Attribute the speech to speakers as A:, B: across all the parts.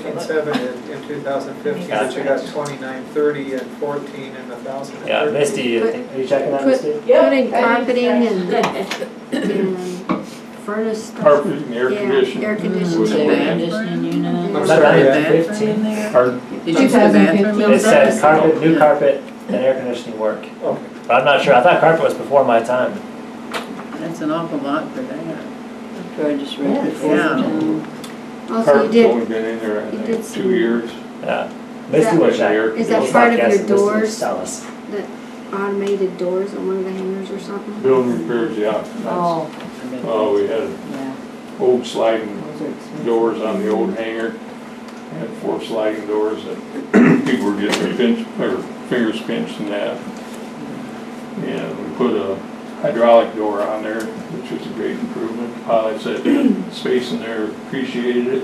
A: 14.7 in, in 2015, but you got 2930 and 14 and 1,030.
B: Yeah, Misty, I think- are you checking that, Misty?
C: Putting
D: I think
C: carpeting and,
D: that's-
C: and Um, furnace stuff.
E: carpet and air
C: Yeah,
E: conditioning.
C: air conditioning.
E: Would
D: Is there air
E: it be-
D: conditioning unit?
A: I'm
B: Is that
A: sorry,
B: right?
A: yeah.
B: Fifteen.
E: Or
D: Did you put a bathroom in
B: It says
D: there?
B: carpet, new carpet, and air conditioning work.
A: Okay,
B: But I'm not sure, I thought carpet was before my time.
D: That's an awful lot for that. I just
C: read
D: read
C: it.
D: Yeah.
C: Also, you
E: carpet's
C: did,
E: only been in there, I
C: you did
E: think,
C: some-
E: two years.
B: Yeah. Misty
E: With
B: was
E: the
B: that.
E: air
C: Is that
E: conditioning.
C: part of your doors?
B: Tell us.
C: automated doors on one of the hangers or something?
E: Building repairs, yeah. that's- Oh, we had
D: Yeah.
E: old sliding
D: Those are expensive.
E: doors on the old hangar. Had four sliding doors that people were getting their pinch, their fingers pinched and that. And we put a hydraulic door on there, which was a great improvement. Pilots that had space in there appreciated it.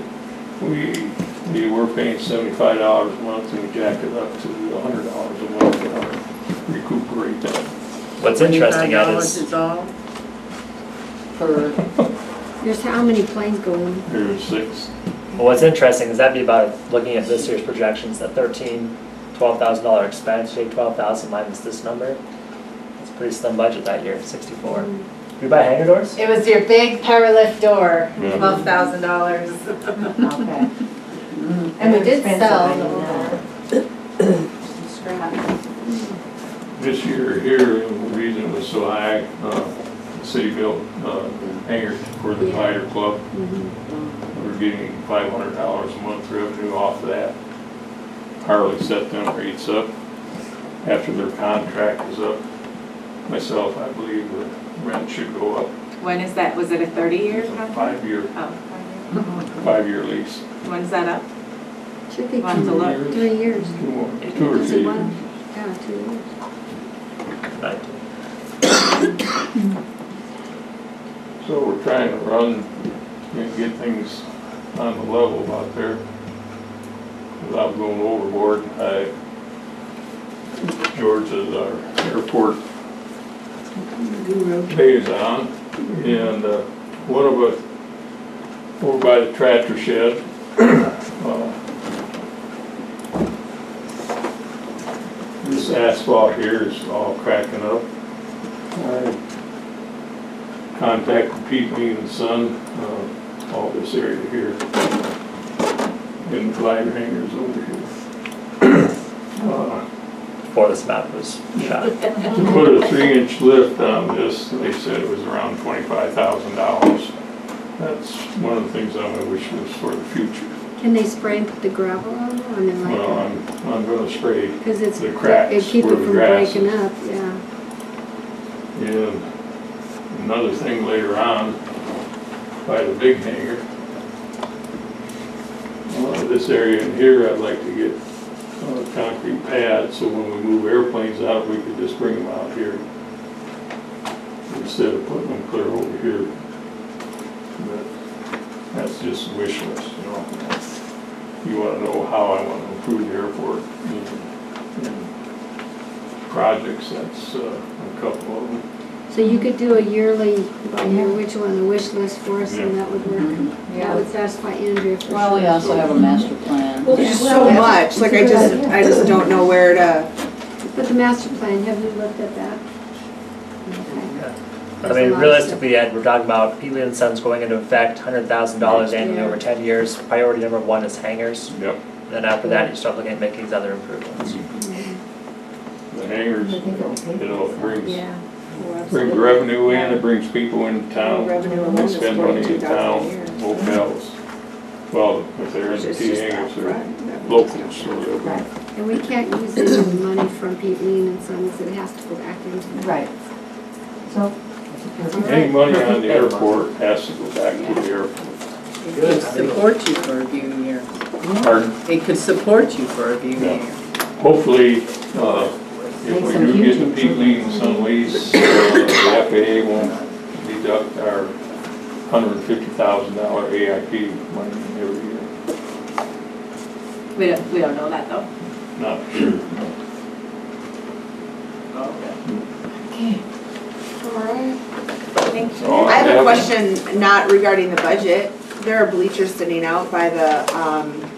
E: We, we were paying seventy-five dollars a month and we jacked it up to a hundred dollars a month to uh, recuperate that.
B: What's interesting at
D: $25
B: is,
D: is all? For.
C: There's how many planes going?
E: There's six,
B: well, what's interesting is that'd be about, looking at this year's projections, that thirteen, twelve thousand dollar expense, take twelve thousand minus this number. It's a pretty slim budget that year, sixty-four.
C: Um,
B: We buy hangar doors?
F: It was your big power lift door,
E: Yeah.
F: twelve thousand dollars.
G: Okay.
H: Mm.
F: And we did
G: Expensive,
F: sell
G: I
F: the
G: know.
F: little scrap.
E: This year here, the reason it was so high, uh, the city built uh, hangar for the fighter club. We're getting five hundred dollars a month revenue off of that. Harley set them rates up after their contract is up. Myself, I believe the rent should go up.
G: When is that, was it a thirty-year
E: It's a
G: contract?
E: five-year,
G: Oh,
E: five-year lease.
G: when's that up?
C: Should be
G: We'll have to
C: two,
G: look.
C: three
E: Two years,
C: years.
E: two more- Two or three years.
C: Yeah, two years.
B: Right.
E: So we're trying to run and get things on the level out there without going overboard. I, George is our airport liaison, and uh, one of us, over by the tractor shed, uh, this asphalt here is all cracking up. I contacted Pete Mead and Son, uh, all this area here. And glider hangers over here. Uh,
B: Before this map was shot.
E: To put a three-inch lift on this, they said it was around twenty-five thousand dollars. That's one of the things I wish was for the future.
C: Can they spray and put the gravel on it? I mean,
E: Well,
C: like,
E: I'm, I'm gonna spray
C: because it's,
E: the cracks
C: it keep it
E: where the
C: from
E: grass
C: breaking up, yeah.
E: And another thing later on, by the big hangar. Uh, This area in here, I'd like to get uh, concrete pads, so when we move airplanes out, we could just bring them out here. Instead of putting them clear over here. But That's just wish list, you know? You wanna know how I wanna improve the airport. and- and Projects, that's uh, a couple of them.
C: So you could do a yearly, by year, which one, the wish list for us, and that would
D: Mm-hmm.
C: work. That
F: Yeah.
C: would satisfy Andrea for sure.
D: Well, we also have a master plan.
H: Well, there's so much, like I just, I just don't know where to,
C: But the master plan, have you looked at that? Okay.
B: I mean, realistically, Ed, we're talking about Peely and Sons going into effect, hundred thousand dollars annually
C: Yeah.
B: over ten years. Priority number one is hangars.
E: Yep,
B: Then after that, you start looking at making these other improvements.
E: the hangars, you know, it brings,
C: Yeah.
E: brings revenue in, it brings people into town,
H: revenue alone
E: they
H: is
E: spend money
H: forty-two
E: in town,
H: thousand a year.
E: hotels. Well, if they're in the
H: It's
E: T
H: just
E: hangars, they're
H: upfront, that was
E: locals,
H: just
E: so
H: upfront.
E: they'll be-
C: And we can't use any money from Pete Lean and Sons, it has to go back into the.
G: Right. So.
E: any money on the airport has to go back to the airport.
D: It could support you for a few years.
E: Pardon?
D: It could support you for a few
E: Yeah.
D: years.
E: Hopefully, uh, if we do get the peak leaves and lease, uh, the FAA won't deduct our hundred and fifty thousand dollar AIP money every year.
G: We don't, we don't know that though.
E: Not sure.
G: Thank
E: So
H: I have
E: that
H: a
E: was-
H: question not regarding the budget. There are bleachers sitting out by the, um,